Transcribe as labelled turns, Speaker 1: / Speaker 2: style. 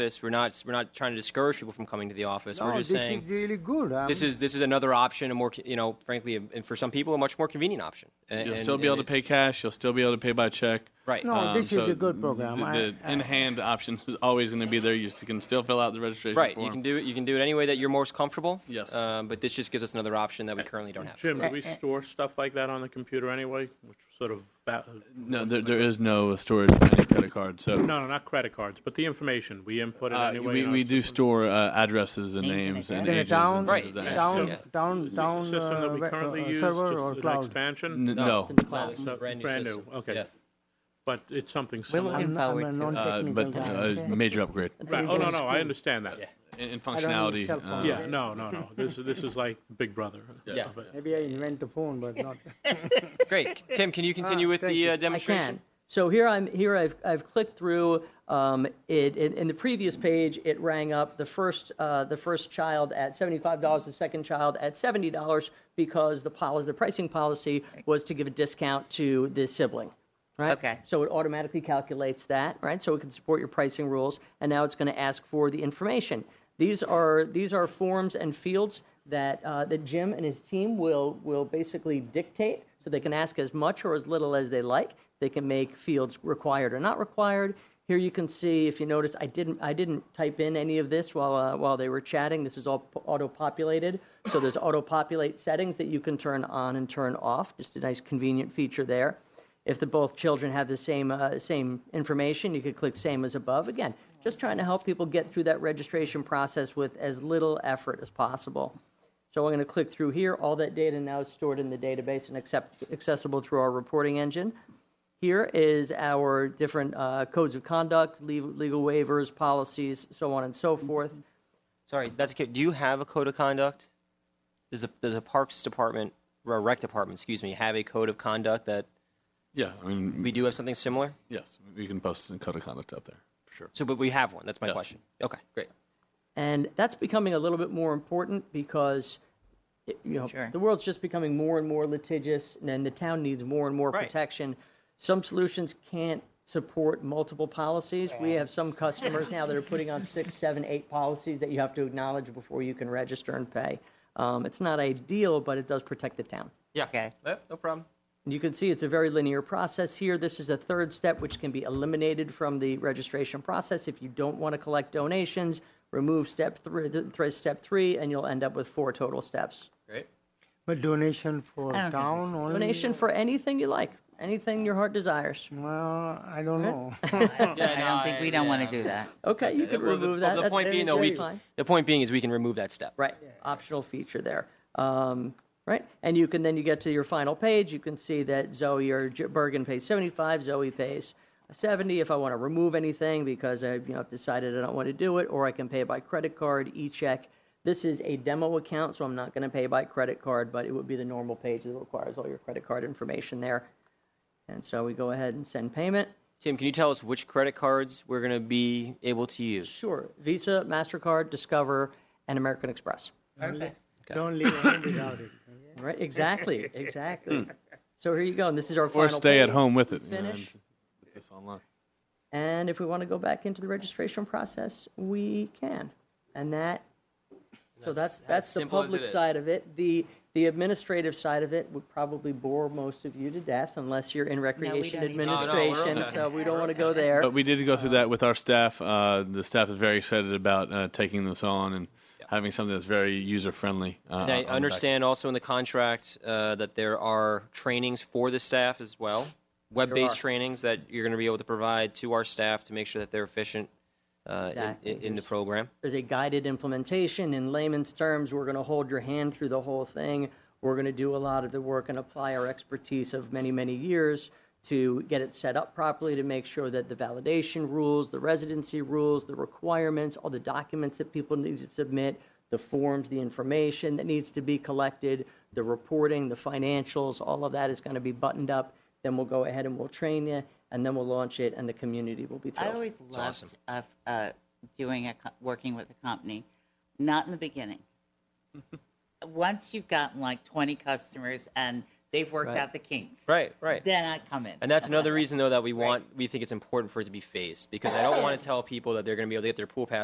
Speaker 1: office. We're not we're not trying to discourage people from coming to the office.
Speaker 2: No,
Speaker 1: we're just
Speaker 2: this
Speaker 1: saying
Speaker 2: is really good. I
Speaker 1: this
Speaker 2: mean,
Speaker 1: is this is another option, a more co- you know, frankly, a- and for some people, a much more convenient option. And,
Speaker 3: You'll
Speaker 1: and-
Speaker 3: still be
Speaker 1: and
Speaker 3: able to pay
Speaker 1: it's-
Speaker 3: cash. You'll still be able to pay by check.
Speaker 1: Right.
Speaker 2: No,
Speaker 3: Um,
Speaker 2: this is
Speaker 3: so
Speaker 2: a good program.
Speaker 3: The,
Speaker 2: I-
Speaker 3: the
Speaker 2: I-
Speaker 3: in-hand option is always going to be there. You s- can still fill out the registration
Speaker 1: Right,
Speaker 3: form.
Speaker 1: you can do it. You can do it any way that you're most comfortable.
Speaker 3: Yes.
Speaker 1: Um, but this just gives us another option that we currently don't have.
Speaker 4: Jim, do we store stuff like that on the computer anyway? Which sort of, va-
Speaker 3: No, there, there is no storage of any credit card. So
Speaker 4: no, no, not credit cards, but the information, we input it
Speaker 3: uh,
Speaker 4: anyway.
Speaker 3: we,
Speaker 4: in our
Speaker 3: we do
Speaker 4: system.
Speaker 3: store uh, addresses and
Speaker 5: Names
Speaker 3: names and
Speaker 5: and
Speaker 2: in a
Speaker 3: ages.
Speaker 2: town,
Speaker 3: and
Speaker 1: Right,
Speaker 3: things
Speaker 1: yeah.
Speaker 3: like that.
Speaker 2: town,
Speaker 4: So,
Speaker 2: town,
Speaker 4: Is
Speaker 2: town
Speaker 4: this a system that
Speaker 2: uh,
Speaker 4: we
Speaker 2: web-
Speaker 4: currently
Speaker 2: uh,
Speaker 4: use, just
Speaker 2: server or
Speaker 4: an
Speaker 2: cloud.
Speaker 4: expansion?
Speaker 3: N- no,
Speaker 1: it's in the
Speaker 5: No,
Speaker 1: cloud.
Speaker 5: it's
Speaker 4: a brand new
Speaker 1: Brand new.
Speaker 4: system. Okay.
Speaker 1: Yeah.
Speaker 4: But it's something
Speaker 5: We're
Speaker 4: similar.
Speaker 2: I'm- I'm
Speaker 5: looking
Speaker 2: a
Speaker 5: forward to it.
Speaker 3: uh,
Speaker 2: non-technical
Speaker 3: but
Speaker 2: guy.
Speaker 3: uh, major upgrade
Speaker 4: Right, oh, no, no, I understand that.
Speaker 3: in, in
Speaker 2: I don't
Speaker 3: functionality.
Speaker 2: use cell
Speaker 3: uh,
Speaker 2: phone.
Speaker 4: Yeah, no, no, no, this, is this is like Big Brother.
Speaker 1: Yeah.
Speaker 4: of it.
Speaker 2: Maybe I invent the phone, but not.
Speaker 1: Great, Tim. Can you continue with
Speaker 2: Ah, thank
Speaker 1: the
Speaker 2: you.
Speaker 1: uh,
Speaker 2: I
Speaker 6: I
Speaker 1: demonstration?
Speaker 6: can. So here I'm here I've I've clicked through um, it, in in the previous page it rang up the first uh, the first child at seventy five dollars the second child at seventy dollars because the policy the pricing policy was to give a discount to the sibling. Right?
Speaker 5: Okay.
Speaker 6: So it automatically calculates that, right? So it can support your pricing rules and now it's going to ask for the information. These are these are forms and fields that uh, that Jim and his team will will basically dictate so they can ask as much or as little as they like. They can make fields required or not required. Here you can see, if you notice, I didn't I didn't type in any of this while uh, while they were chatting. This is all p- auto-populated. So there's auto-populate settings that you can turn on and turn off. Just a nice convenient feature there. If the both children have the same uh, same information, you could click same as above. Again, just trying to help people get through that registration process with as little effort as possible. So I'm going to click through here. All that data now is stored in the database and accept, accessible through our reporting engine. Here is our different uh, codes of conduct, legal, legal waivers, policies, so on and so forth.
Speaker 1: Sorry, that's okay. Do you have a code of conduct? Does the, does the Parks Department, or Rec Department, excuse me, have a code of conduct that
Speaker 3: yeah, I mean,
Speaker 1: we do have something similar?
Speaker 3: yes, we can post a code of conduct up there for sure.
Speaker 1: So, but we have one. That's my
Speaker 3: Yes.
Speaker 1: question. Okay, great.
Speaker 6: And that's becoming a little bit more important because it- you know
Speaker 5: Sure.
Speaker 6: the world's just becoming more and more litigious, and then the town needs more and more
Speaker 1: Right.
Speaker 6: protection. Some solutions can't support multiple policies. We have some customers now that are putting on six, seven, eight policies that you have to acknowledge before you can register and pay. Um, it's not ideal, but it does protect the town.
Speaker 1: Yeah.
Speaker 5: Okay.
Speaker 1: Yeah, no problem.
Speaker 6: And You can see it's a very linear process here. This is a third step which can be eliminated from the registration process. If you don't want to collect donations, remove step three, th- th- step three, and you'll end up with four total steps.
Speaker 1: Great.
Speaker 2: But donation for
Speaker 5: I don't think
Speaker 2: town only.
Speaker 6: Donation for anything you like, anything your heart desires.
Speaker 2: Well, I don't know.
Speaker 5: I don't think we don't want to do that.
Speaker 6: Okay, you can
Speaker 1: Well, the,
Speaker 6: remove that.
Speaker 1: the
Speaker 6: That's
Speaker 1: point being, though, we,
Speaker 6: fine.
Speaker 1: the point being is we can remove that step.
Speaker 6: Right, optional feature there. Um, Right, and you can, then you get to your final page, you can see that Zoe or J- Bergen pays 75, Zoe pays 70. If I want to remove anything because I, you know, have decided I don't want to do it, or I can pay by credit card, e-check. This is a demo account, so I'm not going to pay by credit card, but it would be the normal page that requires all your credit card information there. And so we go ahead and send payment.
Speaker 1: Tim, can you tell us which credit cards we're going to be able to use?
Speaker 6: Sure, Visa, MasterCard, Discover, and American Express.
Speaker 5: Perfect.
Speaker 2: Don't leave home without it.
Speaker 6: Right, exactly, exactly. so here you go, and this is our
Speaker 3: Hmm. Or
Speaker 6: final.
Speaker 3: stay at
Speaker 6: page.
Speaker 3: home with it. you know,
Speaker 6: Finish.
Speaker 3: and put this online.
Speaker 6: And if we want to go back into the registration process, we can. And that, so that's, that's the
Speaker 1: simple as it
Speaker 6: public
Speaker 1: is.
Speaker 6: side of it. The, the administrative side of it would probably bore most of you to death unless you're in recreation
Speaker 5: don't need- No,
Speaker 1: no, we're
Speaker 6: administration,
Speaker 1: okay.
Speaker 6: so we don't want to go there.
Speaker 3: But we did go through that with our staff. Uh, the staff is very excited about uh, taking this on and having something that's very user friendly. Uh, on-
Speaker 1: And
Speaker 3: on
Speaker 1: I
Speaker 3: the back.
Speaker 1: understand also in the contract uh, that there are trainings for the staff as well, web-based trainings that you're going to be able to provide to our staff to make sure that they're efficient uh, in-
Speaker 6: Exactly.
Speaker 1: in, in the program.
Speaker 6: There's a guided implementation. In layman's terms, we're going to hold your hand through the whole thing. We're going to do a lot of the work and apply our expertise of many, many years to get it set up properly to make sure that the validation rules, the residency rules, the requirements, all the documents that people need to submit, the forms, the information that needs to be collected, the reporting, the financials, all of that is going to be buttoned up. Then we'll go ahead and we'll train you, and then we'll launch it, and the community will be thrilled.
Speaker 5: I always loved uh, uh, doing a co- working with a company, not in the beginning. Once you've gotten like 20 customers and They've worked
Speaker 6: Right.
Speaker 5: out the kinks.
Speaker 1: Right, right.
Speaker 5: Then I come in.
Speaker 1: And that's another reason, though, that we want, we think it's important for it to be phased because I don't want to tell people that they're going to be able to get their pool pass